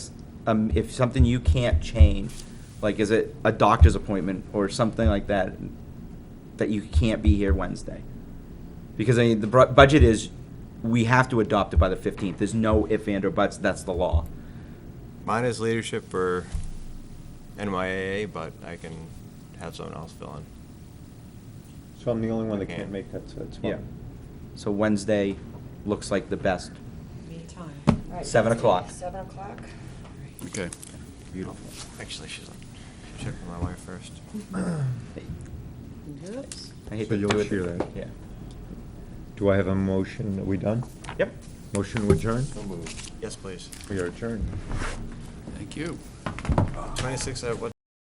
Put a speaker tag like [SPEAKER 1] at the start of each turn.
[SPEAKER 1] um, if something you can't change, like is it a doctor's appointment or something like that, that you can't be here Wednesday? Because I mean, the bru- budget is, we have to adopt it by the fifteenth. There's no if and or buts. That's the law.
[SPEAKER 2] Mine is leadership for NYAA, but I can have someone else fill in.
[SPEAKER 3] So I'm the only one that
[SPEAKER 2] Okay.
[SPEAKER 3] can't make that, so that's
[SPEAKER 1] Yeah.
[SPEAKER 3] fine.
[SPEAKER 1] So Wednesday looks like the best.
[SPEAKER 4] Me time.
[SPEAKER 5] Right,
[SPEAKER 1] Seven o'clock.
[SPEAKER 5] Seven o'clock.
[SPEAKER 6] Okay.
[SPEAKER 1] Beautiful.
[SPEAKER 2] Actually, she's, she checked with my wife first.
[SPEAKER 4] Oops.
[SPEAKER 1] I hate
[SPEAKER 3] So
[SPEAKER 1] to
[SPEAKER 3] you'll
[SPEAKER 1] do it.
[SPEAKER 3] share that.
[SPEAKER 1] Yeah.
[SPEAKER 3] Do I have a motion? Are we done?
[SPEAKER 1] Yep.
[SPEAKER 3] Motion to adjourn?
[SPEAKER 2] Yes, please.
[SPEAKER 3] We are adjourned.
[SPEAKER 6] Thank you.
[SPEAKER 2] Twenty-six at what